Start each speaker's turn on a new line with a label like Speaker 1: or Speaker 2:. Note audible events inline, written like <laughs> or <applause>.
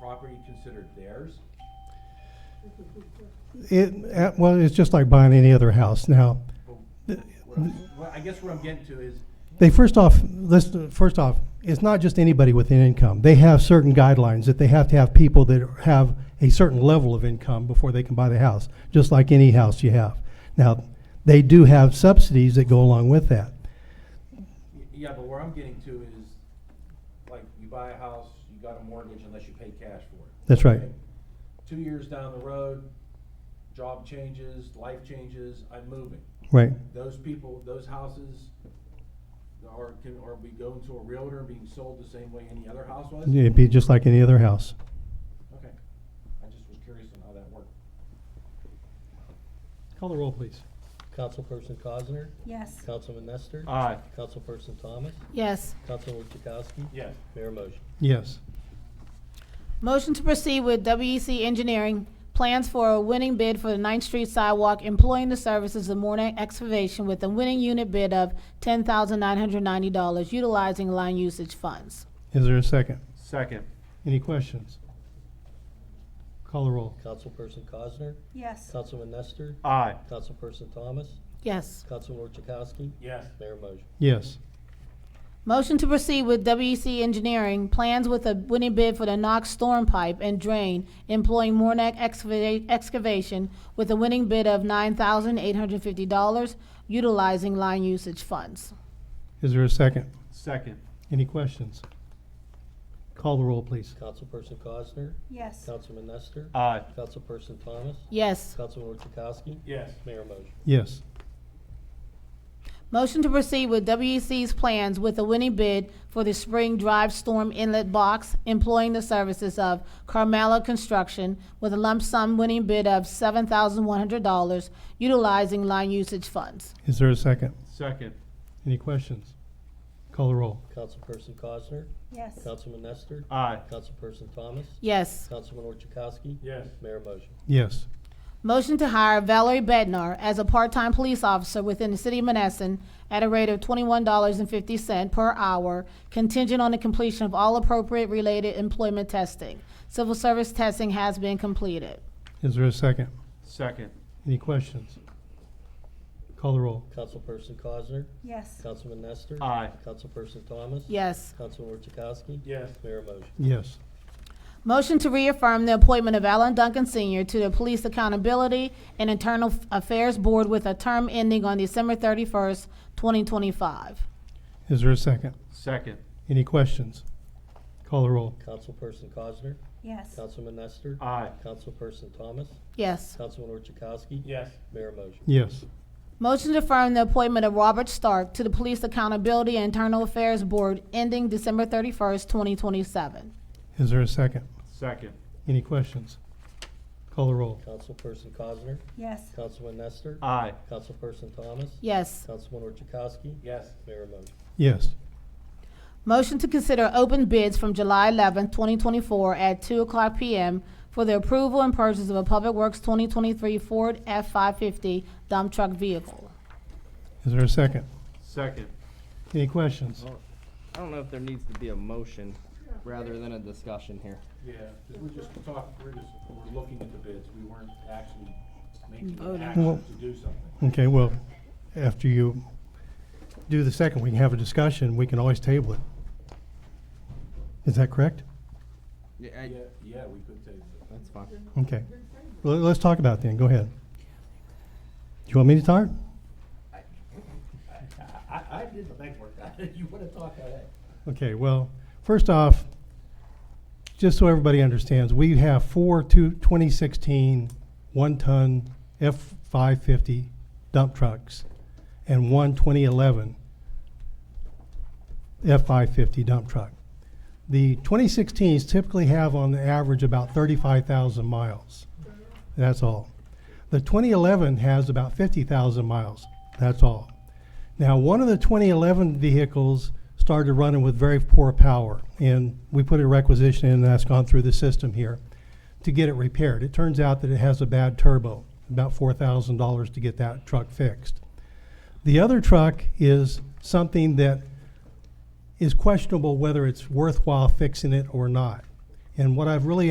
Speaker 1: property considered theirs?
Speaker 2: It, uh, well, it's just like buying any other house. Now,
Speaker 1: But
Speaker 2: th-
Speaker 1: what I'm- Well, I guess what I'm getting to is,
Speaker 2: they first off, let's, first off, it's not just anybody with an income. They have certain guidelines that they have to have people that have a certain level of income before they can buy the house, just like any house you have. Now, they do have subsidies that go along with that.
Speaker 1: y- yeah, but where I'm getting to is, like, you buy a house, you got a mortgage unless you pay cash for it.
Speaker 2: That's right.
Speaker 1: Okay? Two years down the road, job changes, life changes, I'm moving.
Speaker 2: Right,
Speaker 1: Those people, those houses are, can, are we going to a realtor and being sold the same way any other house was?
Speaker 2: it'd be just like any other house.
Speaker 1: Okay, I just was curious on how that worked.
Speaker 3: Call the roll, please.
Speaker 4: Councilperson Cosner,
Speaker 5: Yes.
Speaker 4: Councilman Nestor,
Speaker 1: Aye.
Speaker 4: Councilperson Thomas,
Speaker 6: Yes.
Speaker 4: Councilman Chakowski.
Speaker 1: Yes.
Speaker 4: Mayor motion.
Speaker 2: Yes.
Speaker 6: Motion to proceed with WEC Engineering, plans for a winning bid for the Ninth Street sidewalk employing the services of morning excavation with a winning unit bid of ten thousand nine hundred ninety dollars utilizing line usage funds.
Speaker 2: Is there a second?
Speaker 3: Second.
Speaker 2: Any questions? Call the roll.
Speaker 4: Councilperson Cosner,
Speaker 5: Yes.
Speaker 4: Councilman Nestor,
Speaker 3: Aye.
Speaker 4: Councilperson Thomas,
Speaker 6: Yes.
Speaker 4: Councilman Chakowski.
Speaker 1: Yes.
Speaker 4: Mayor motion.
Speaker 2: Yes.
Speaker 6: Motion to proceed with WEC Engineering, plans with a winning bid for the Knox storm pipe and drain employing Mornack excava- excavation with a winning bid of nine thousand eight hundred fifty dollars utilizing line usage funds.
Speaker 2: Is there a second?
Speaker 3: Second.
Speaker 2: Any questions? Call the roll, please.
Speaker 4: Councilperson Cosner,
Speaker 5: Yes.
Speaker 4: Councilman Nestor,
Speaker 3: Aye.
Speaker 4: Councilperson Thomas,
Speaker 6: Yes.
Speaker 4: Councilman Chakowski.
Speaker 1: Yes.
Speaker 4: Mayor motion.
Speaker 2: Yes.
Speaker 6: Motion to proceed with WEC's plans with a winning bid for the spring drive storm inlet box employing the services of Carmela Construction with a lump sum winning bid of seven thousand one hundred dollars utilizing line usage funds.
Speaker 2: Is there a second?
Speaker 3: Second.
Speaker 2: Any questions? Call the roll.
Speaker 4: Councilperson Cosner,
Speaker 5: Yes.
Speaker 4: Councilman Nestor,
Speaker 3: Aye.
Speaker 4: Councilperson Thomas,
Speaker 6: Yes.
Speaker 4: Councilman Chakowski.
Speaker 1: Yes.
Speaker 4: Mayor motion.
Speaker 2: Yes.
Speaker 6: Motion to hire Valerie Bednar as a part-time police officer within the city of Menneson at a rate of twenty-one dollars and fifty cent per hour contingent on the completion of all appropriate related employment testing. Civil service testing has been completed.
Speaker 2: Is there a second?
Speaker 3: Second.
Speaker 2: Any questions? Call the roll.
Speaker 4: Councilperson Cosner,
Speaker 5: Yes.
Speaker 4: Councilman Nestor.
Speaker 3: Aye.
Speaker 4: Councilperson Thomas.
Speaker 6: Yes.
Speaker 4: Councilman Chakowski.
Speaker 1: Yes.
Speaker 4: Mayor motion.
Speaker 2: Yes.
Speaker 6: Motion to reaffirm the appointment of Alan Duncan Senior to the Police Accountability and Internal Affairs Board with a term ending on December thirty-first, twenty twenty-five.
Speaker 2: Is there a second?
Speaker 3: Second.
Speaker 2: Any questions? Call the roll.
Speaker 4: Councilperson Cosner,
Speaker 5: Yes.
Speaker 4: Councilman Nestor.
Speaker 3: Aye.
Speaker 4: Councilperson Thomas,
Speaker 6: Yes.
Speaker 4: Councilman Chakowski.
Speaker 1: Yes.
Speaker 4: Mayor motion.
Speaker 2: Yes.
Speaker 6: Motion to affirm the appointment of Robert Stark to the Police Accountability and Internal Affairs Board ending December thirty-first, twenty twenty-seven.
Speaker 2: Is there a second?
Speaker 3: Second.
Speaker 2: Any questions? Call the roll.
Speaker 4: Councilperson Cosner,
Speaker 5: Yes.
Speaker 4: Councilman Nestor.
Speaker 3: Aye.
Speaker 4: Councilperson Thomas.
Speaker 6: Yes.
Speaker 4: Councilman Chakowski.
Speaker 1: Yes.
Speaker 4: Mayor motion.
Speaker 2: Yes.
Speaker 6: Motion to consider open bids from July eleventh, twenty twenty-four at two o'clock PM for the approval and purchase of a Public Works twenty twenty-three Ford F five fifty dump truck vehicle.
Speaker 2: Is there a second?
Speaker 3: Second.
Speaker 2: Any questions?
Speaker 7: I don't know if there needs to be a motion rather than a discussion here.
Speaker 1: Yeah, because we're just talk, we're just, we're looking at the bids, we weren't actually making an
Speaker 6: Voting.
Speaker 2: Well-
Speaker 1: action to do something.
Speaker 2: Okay, well, after you do the second, we can have a discussion. We can always table it. Is that correct?
Speaker 7: Yeah,
Speaker 1: Yeah,
Speaker 7: I-
Speaker 1: yeah, we could table it.
Speaker 7: that's fine.
Speaker 2: Okay. Well, let's talk about it then. Go ahead. Do you want me to start?
Speaker 1: I, I- I did the legwork, <laughs> you want to talk about that?
Speaker 2: Okay, well, first off, just so everybody understands, we have four two, 2016 one-ton F-550 dump trucks and one 2011 F-550 dump truck. The 2016s typically have on the average about 35,000 miles. That's all. The 2011 has about 50,000 miles. That's all. Now, one of the 2011 vehicles started running with very poor power, and we put a requisition in, and that's gone through the system here to get it repaired. It turns out that it has a bad turbo, about $4,000 to get that truck fixed. The other truck is something that is questionable whether it's worthwhile fixing it or not. And what I've really